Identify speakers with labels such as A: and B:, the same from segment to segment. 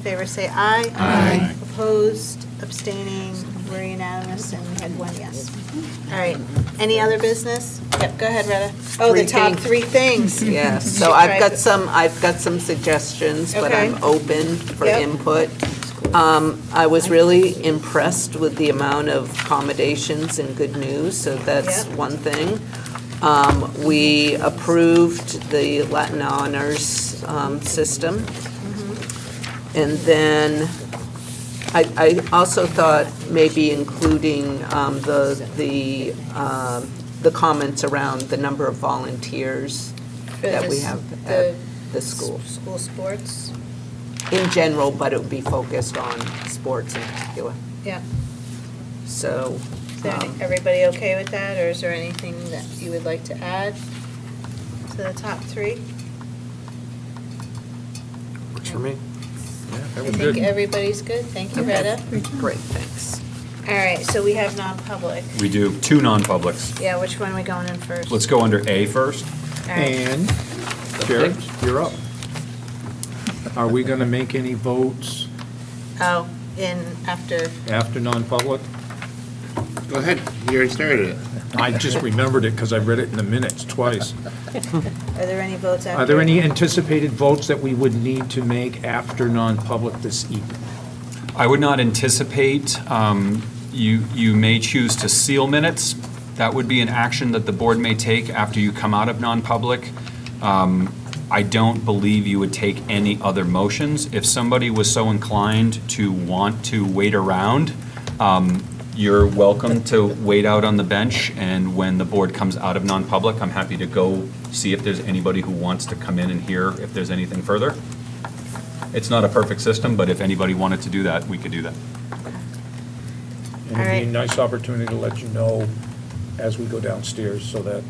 A: favor say aye.
B: Aye.
A: Opposed, abstaining, we're unanimous, and we had one yes. All right, any other business? Yep, go ahead, Retta. Oh, the
C: Three
A: top
C: things.
A: three things.
C: Yes,
A: Should
C: so I've
A: try
C: got
A: to-
C: some, I've got some suggestions, but I'm
A: Okay.
C: open for
A: Yep.
C: input. Um, I was really impressed with the amount of accommodations and good news, so that's
A: Yep.
C: one thing. Um, We approved the Latin honors um, system. And then I, I also thought maybe including um, the, the, um, the comments around the number of volunteers
A: For
C: that we
A: this-
C: have
A: the
C: at the school.
A: School sports,
C: In general, but it would be focused on sports in particular.
A: yeah.
C: So,
A: Is there any-
C: um,
A: Everybody okay with that, or is there anything that you would like to add to the top three?
D: Works for me.
A: I think everybody's good, thank you,
C: okay.
A: Retta.
C: Great, thanks.
A: All right, so we have non-public.
D: We do two non-publics.
A: Yeah, which one are we going in 1st
D: Let's go under A first.
A: All right.
E: And Jared, you're up. Are we going to make any votes
A: Oh, in, after,
E: after non-public?
F: Go ahead, you already started it.
E: I just remembered it because I read it in the minutes twice.
A: are there any votes after?
E: Are there any anticipated votes that we would need to make after non-public this evening?
D: I would not anticipate, um, you, you may choose to seal minutes. That would be an action that the board may take after you come out of non-public. Um, I don't believe you would take any other motions. If somebody was so inclined to want to wait around, um, you're welcome to wait out on the bench, and when the board comes out of non-public, I'm happy to go see if there's anybody who wants to come in and hear if there's anything further. It's not a perfect system, but if anybody wanted to do that, we could do that.
E: And it'd be a nice opportunity to let you know as we go downstairs so that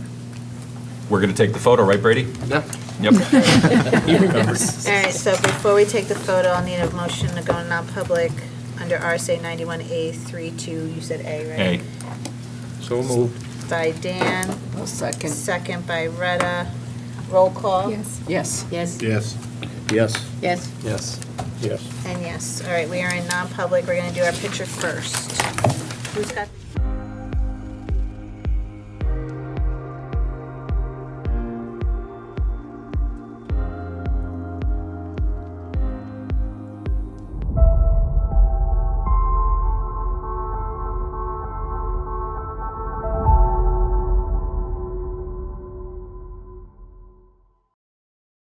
D: We're going to take the photo, right, Brady?
F: Yeah.
D: Yep.
E: he remembers.
A: All right, so before we take the photo, I'll need a motion to go non-public under RSA 91A32, you said A,
D: A.
A: right?
E: So moved.
A: By Dan,
C: Well, second.
A: second by Retta. Roll call?
G: Yes.
C: Yes.
G: Yes.
F: Yes. Yes.
G: Yes.
F: Yes.
E: Yes.
A: And yes, all right, we are in non-public, we're going to do our picture first. Who's got?